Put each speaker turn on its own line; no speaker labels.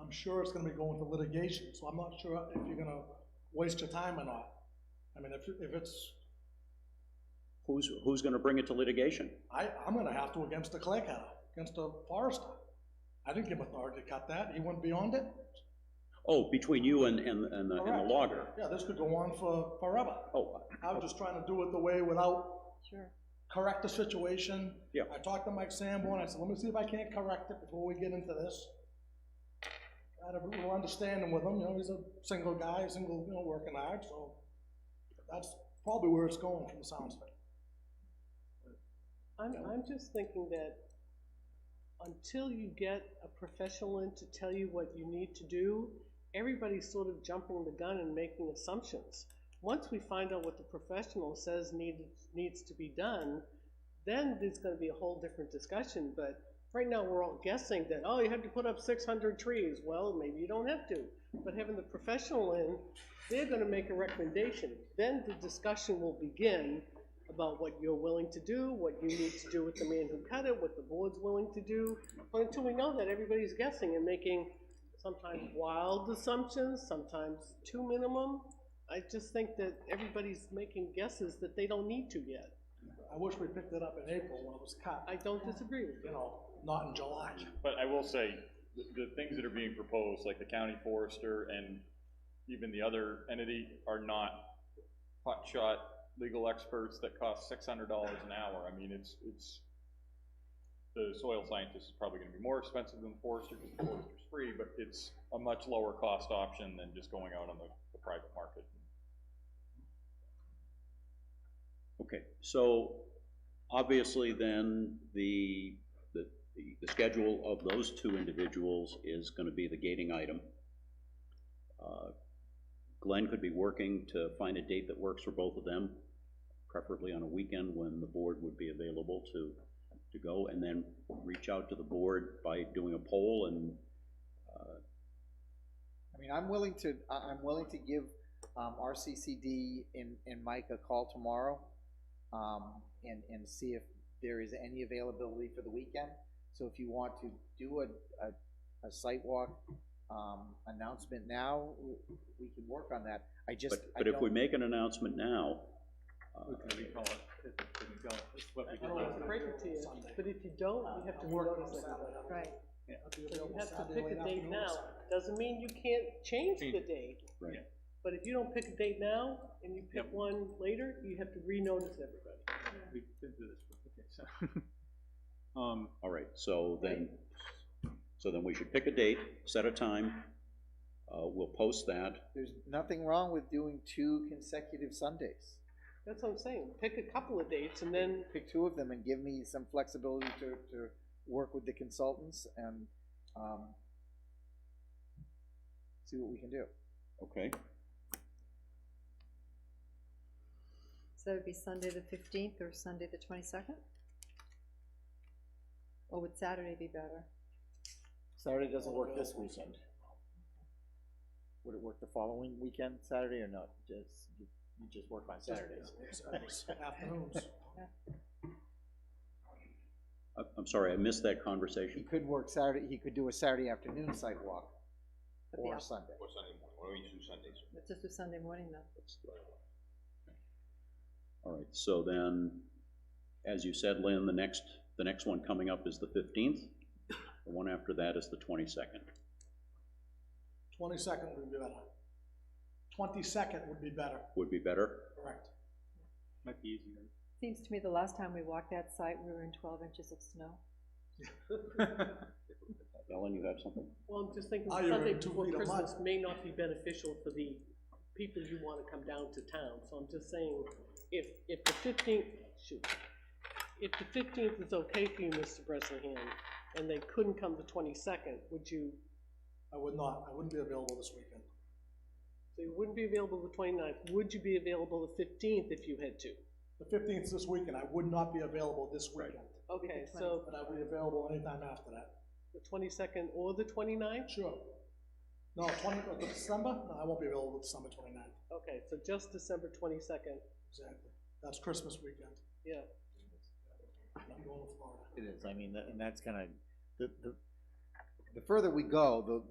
I'm sure it's gonna be going to litigation, so I'm not sure if you're gonna waste your time or not. I mean, if, if it's,
Who's, who's gonna bring it to litigation?
I, I'm gonna have to against the clay cutter, against the forester. I didn't give authority to cut that, he wouldn't be on it.
Oh, between you and, and, and the, and the
Correct.
logger?
Yeah, this could go on for forever.
Oh,
I was just trying to do it the way without
Sure.
correct the situation.
Yeah.
I talked to Mike Sanborn, I said, let me see if I can't correct it before we get into this. I had a little understanding with him, you know, he's a single guy, single, you know, working hard, so that's probably where it's going from the sounds of it.
I'm, I'm just thinking that until you get a professional in to tell you what you need to do, everybody's sort of jumping the gun and making assumptions. Once we find out what the professional says needs, needs to be done, then there's gonna be a whole different discussion, but right now, we're all guessing that, oh, you have to put up six hundred trees, well, maybe you don't have to. But having the professional in, they're gonna make a recommendation, then the discussion will begin about what you're willing to do, what you need to do with the man who cut it, what the board's willing to do. But until we know that, everybody's guessing and making sometimes wild assumptions, sometimes too minimum. I just think that everybody's making guesses that they don't need to yet.
I wish we picked it up in April when it was cut,
I don't disagree with
you
you.
know, not in July.
But I will say, the, the things that are being proposed, like the county forester and even the other entity, are not hotshot legal experts that cost six hundred dollars an hour. I mean, it's, it's, the soil scientist is probably gonna be more expensive than the forester, because the forester's free, but it's a much lower cost option than just going out on the, the private market.
okay, so obviously then, the, the, the- the schedule of those two individuals is gonna be the gating item. Uh, Glenn could be working to find a date that works for both of them, preferably on a weekend when the board would be available to, to go, and then reach out to the board by doing a poll and
I mean, I'm willing to, I, I'm willing to give, um, RCCD and, and Mike a call tomorrow, um, and, and see if there is any availability for the weekend. So if you want to do a, a, a site walk, um, announcement now, we, we can work on that. I just,
But,
I
but if we
don't,
make an announcement now, uh,
It's great to you, but if you don't, you have to
I'm working
notice
on
it.
Saturday. I'll be-
Right.
I'll be
So you
available
have to
Saturday
pick
late
a date
afternoon,
now, doesn't mean you can't change the date.
Right.
But if you don't pick a date now, and you pick one later, you have to renotice everybody.
We did do this, okay, so. Um,
all right, so then, so then we should pick a date, set a time, uh, we'll post that.
there's nothing wrong with doing two consecutive Sundays.
That's what I'm saying, pick a couple of dates, and then,
Pick two of them and give me some flexibility to, to work with the consultants and, um, see what we can do.
Okay.
So it'd be Sunday the fifteenth or Sunday the twenty-second? Or would Saturday be better?
Saturday doesn't work this weekend. Would it work the following weekend, Saturday, or no? Just, you you just work on Saturdays?
so- Afternoons.
I, I'm sorry, I missed that
He
conversation.
could work Saturday, he could do a Saturday afternoon site walk,
But
or
the-
Sunday.
Let's just do Sunday morning then.
All right, so then, as you said, Lynn, the next, the next one coming up is the fifteenth, the one after that is the twenty-second.
Twenty-second would be better. Twenty-second would be better,
Would be better?
correct.
might be easier.
Seems to me the last time we walked that site, we were in twelve inches of snow.
Ellen, you have something?
well, I'm just thinking,
Oh, you're
Sunday
in two
before
feet of mud.
Christmas may not be beneficial for the people you wanna come down to town, so I'm just saying, if, if the fifteenth, shoot, if the fifteenth is okay for you, Mr. Bresnahan, and they couldn't come the twenty-second, would you
I would not, I wouldn't be available this weekend.
So you wouldn't be available the 29th. Would you be available the fifteenth if you had to?
The fifteenth is this weekend, I would not be available this weekend,
Okay, so
but I would be available anytime after that.
the twenty-second or the 29th.
Sure. No, twenty, uh, December, no, I won't be available December twenty-ninth,
Okay, so just December twenty-second,
exactly. That's Christmas weekend,
yeah.
I'm going to Florida.
It is, I mean, and that's gonna, the, the. The further we go, the,